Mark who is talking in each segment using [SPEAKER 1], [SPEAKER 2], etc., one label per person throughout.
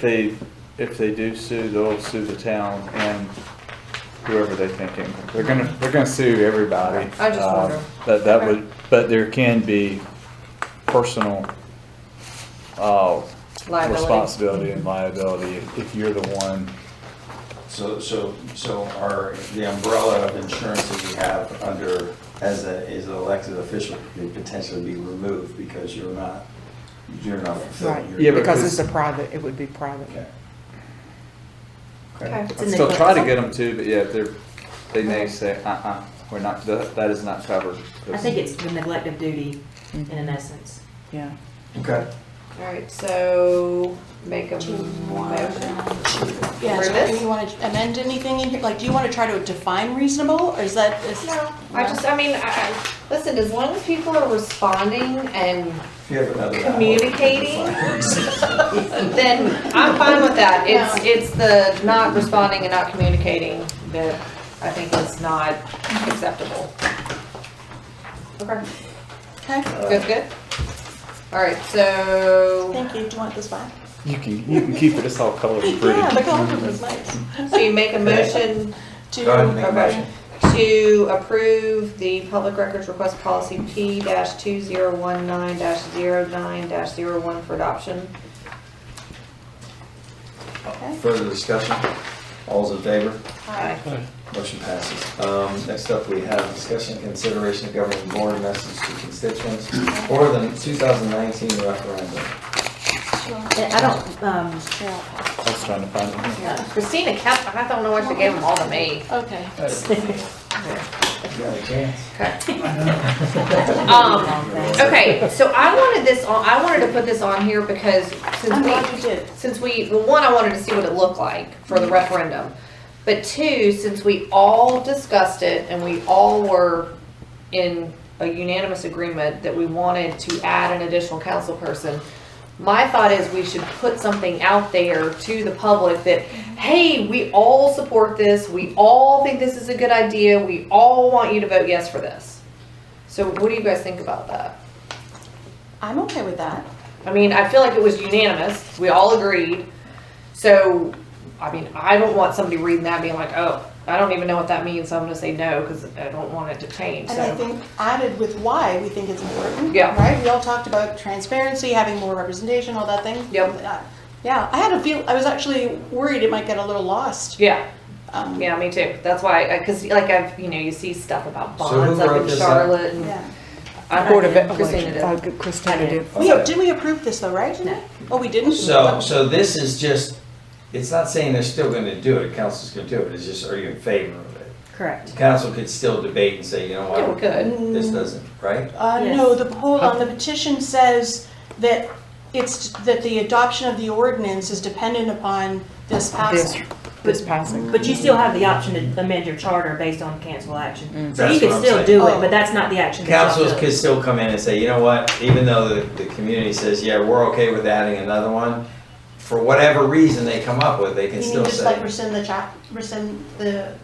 [SPEAKER 1] they, if they do sue, they'll sue the town and whoever they think, it- they're gonna, they're gonna sue everybody.
[SPEAKER 2] I just
[SPEAKER 1] Um,
[SPEAKER 2] wonder.
[SPEAKER 1] But that
[SPEAKER 2] Okay.
[SPEAKER 1] would, but there can be personal, uh,
[SPEAKER 2] Liability.
[SPEAKER 1] responsibility and liability if- if you're the one.
[SPEAKER 3] So, so, so our, the umbrella of insurance that we have under, as a, as an elected official could potentially be removed because you're not, you're not
[SPEAKER 4] Right,
[SPEAKER 3] fulfilling your.
[SPEAKER 1] Yeah,
[SPEAKER 4] because
[SPEAKER 1] because-
[SPEAKER 4] it's a private, it would be private.
[SPEAKER 3] Okay.
[SPEAKER 2] Okay.
[SPEAKER 1] I'd still try to get them to, but yeah, if they're, they may say, uh-uh, we're not, that, that is not covered.
[SPEAKER 5] I think it's the neglect of duty in an essence.
[SPEAKER 4] Yeah.
[SPEAKER 3] Okay.
[SPEAKER 2] All right, so make a motion.
[SPEAKER 6] Yeah,
[SPEAKER 2] For
[SPEAKER 6] so
[SPEAKER 2] this?
[SPEAKER 6] do you want to amend anything in here? Like, do you want to try to define reasonable, or is that, is?
[SPEAKER 2] No, I just, I mean, I, I, listen, as long as people are responding and
[SPEAKER 3] If you have another. hour,
[SPEAKER 2] Communicating?
[SPEAKER 3] it's fine.
[SPEAKER 2] then I'm fine with that. It's, it's the not responding and not communicating that I think is not acceptable. Okay.
[SPEAKER 6] Okay,
[SPEAKER 2] Good, good? All right, so,
[SPEAKER 6] thank you, do you want this back?
[SPEAKER 1] You can, you can keep it, it's all colored and pretty.
[SPEAKER 6] Yeah, the color was nice.
[SPEAKER 2] so you make a motion
[SPEAKER 6] To-
[SPEAKER 3] Go ahead and make a
[SPEAKER 2] Okay.
[SPEAKER 3] motion.
[SPEAKER 2] to approve the public records request policy P two zero one nine 9 1 for adoption.
[SPEAKER 3] Further discussion? All's in favor?
[SPEAKER 2] Aye.
[SPEAKER 3] Motion passes. Um, Next up, we have discussion and consideration of governing board message to constituents for the 2019 referendum.
[SPEAKER 5] I don't, um,
[SPEAKER 6] Yeah,
[SPEAKER 1] I was trying to find it.
[SPEAKER 2] Christina kept, I don't know why she gave them all to me.
[SPEAKER 6] Okay.
[SPEAKER 2] Uh,
[SPEAKER 3] You got a chance.
[SPEAKER 2] Um, okay, so I wanted this on, I wanted to put this on here because
[SPEAKER 6] I'm
[SPEAKER 2] since we,
[SPEAKER 6] glad you did.
[SPEAKER 2] since we, well, one, I wanted to see what it looked like for the referendum. But two, since we all discussed it and we all were in a unanimous agreement that we wanted to add an additional council person, my thought is we should put something out there to the public that, hey, we all support this, we all think this is a good idea, we all want you to vote yes for this. So what do you guys think about that?
[SPEAKER 6] I'm okay with that.
[SPEAKER 2] I mean, I feel like it was unanimous. We all agreed. So, I mean, I don't want somebody reading that being like, oh, I don't even know what that means, so I'm gonna say no, because I don't want it to change,
[SPEAKER 6] And I
[SPEAKER 2] so.
[SPEAKER 6] think added with why we think it's important.
[SPEAKER 2] Yeah.
[SPEAKER 6] Right, we all talked about transparency, having more representation, all that thing.
[SPEAKER 2] Yep.
[SPEAKER 6] Yeah. Yeah, I had a feel, I was actually worried it might get a little lost.
[SPEAKER 2] Yeah,
[SPEAKER 6] Um,
[SPEAKER 2] yeah, me too. That's why, because like I've, you know, you see stuff about
[SPEAKER 3] So who
[SPEAKER 2] bonds
[SPEAKER 3] wrote
[SPEAKER 2] up in
[SPEAKER 3] this up?
[SPEAKER 2] Charlotte and.
[SPEAKER 6] Yeah.
[SPEAKER 2] I
[SPEAKER 4] Board of
[SPEAKER 2] did. Christina
[SPEAKER 4] Elections,
[SPEAKER 2] did.
[SPEAKER 4] oh, good, Christina did.
[SPEAKER 6] We, did we approve this though, right?
[SPEAKER 5] No.
[SPEAKER 6] Oh, we didn't?
[SPEAKER 3] So, so this is just, it's not saying they're still gonna do it, council's gonna do it, it's just, are you in favor of it?
[SPEAKER 5] correct.
[SPEAKER 3] Council could still debate and say, you know
[SPEAKER 2] Yeah, we
[SPEAKER 3] what,
[SPEAKER 2] could.
[SPEAKER 3] this doesn't, right?
[SPEAKER 6] Uh,
[SPEAKER 5] Yes.
[SPEAKER 6] no, the poll on the petition says that it's, that the adoption of the ordinance is dependent upon
[SPEAKER 4] This,
[SPEAKER 6] this passing.
[SPEAKER 4] this passing.
[SPEAKER 5] But you still have the option to amend your charter based on cancel action. So
[SPEAKER 3] That's
[SPEAKER 5] you
[SPEAKER 3] what
[SPEAKER 5] can
[SPEAKER 3] I'm
[SPEAKER 5] still
[SPEAKER 3] saying.
[SPEAKER 5] do
[SPEAKER 6] Oh.
[SPEAKER 5] it, but that's not the action. that y'all
[SPEAKER 3] Councils
[SPEAKER 5] took.
[SPEAKER 3] could still come in and say, you know what, even though the, the community says, yeah, we're okay with adding another one, for whatever reason they come up with, they
[SPEAKER 6] You
[SPEAKER 3] can
[SPEAKER 6] mean
[SPEAKER 3] still
[SPEAKER 6] just like
[SPEAKER 3] say,
[SPEAKER 6] rescind the chap, rescind the,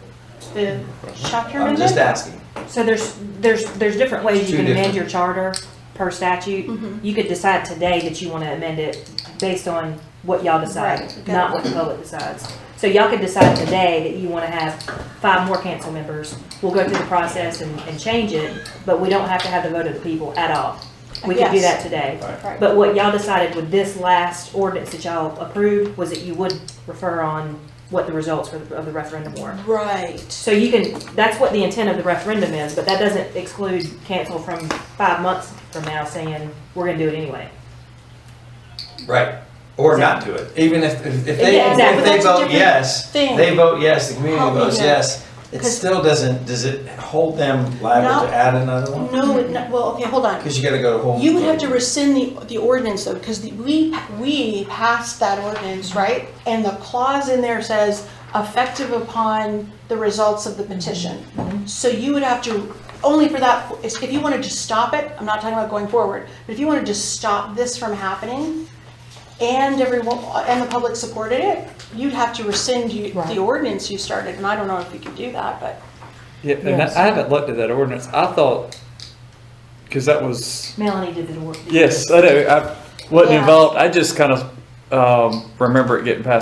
[SPEAKER 6] the chapter
[SPEAKER 3] I'm just
[SPEAKER 6] amendment?
[SPEAKER 3] asking.
[SPEAKER 5] So there's, there's, there's different ways
[SPEAKER 3] It's
[SPEAKER 5] you
[SPEAKER 3] two
[SPEAKER 5] can amend
[SPEAKER 3] different-
[SPEAKER 5] your charter per statute.
[SPEAKER 6] Mhm.
[SPEAKER 5] You could decide today that you want to amend it based on what y'all decide,
[SPEAKER 6] Right, okay.
[SPEAKER 5] not what the public decides. So y'all could decide today that you want to have five more council members. We'll go through the process and, and change it, but we don't have to have the vote of the people at all. We could do
[SPEAKER 6] Yes.
[SPEAKER 5] that today.
[SPEAKER 6] Right.
[SPEAKER 5] But what y'all decided with this last ordinance that y'all approved was that you would refer on what the results for the- of the referendum were.
[SPEAKER 6] Right.
[SPEAKER 5] So you can, that's what the intent of the referendum is, but that doesn't exclude cancel from five months from now saying, we're gonna do it anyway.
[SPEAKER 3] Right, or not do it, even if, if if they,
[SPEAKER 5] Yeah,
[SPEAKER 3] if
[SPEAKER 5] exactly.
[SPEAKER 3] they
[SPEAKER 6] That's a
[SPEAKER 3] vote
[SPEAKER 6] different
[SPEAKER 3] yes,
[SPEAKER 6] thing.
[SPEAKER 3] they vote yes, the community
[SPEAKER 6] Help me
[SPEAKER 3] votes
[SPEAKER 6] here.
[SPEAKER 3] yes, it
[SPEAKER 6] 'Cause-
[SPEAKER 3] still doesn't, does it hold them liable
[SPEAKER 6] No.
[SPEAKER 3] to add another one?
[SPEAKER 6] No, it- no, well, okay, hold on.
[SPEAKER 3] Cause you gotta go to whole.
[SPEAKER 6] You would have to rescind the, the ordinance though, because the- we, we passed that ordinance, right? And the clause in there says effective upon the results of the petition. So you would have to, only for that, if if you wanted to stop it, I'm not talking about going forward, but if you wanted to stop this from happening and everyone, and the public supported it, you'd have to rescind you,
[SPEAKER 4] Right.
[SPEAKER 6] the ordinance you started, and I don't know if you could do that, but.
[SPEAKER 1] Yeah, and
[SPEAKER 4] Yes.
[SPEAKER 1] that- I haven't looked at that ordinance. I thought, because that was,
[SPEAKER 5] Melanie did the work.
[SPEAKER 1] yes, I know, I wasn't
[SPEAKER 6] Yeah.
[SPEAKER 1] involved. I just kind of um, remember it getting passed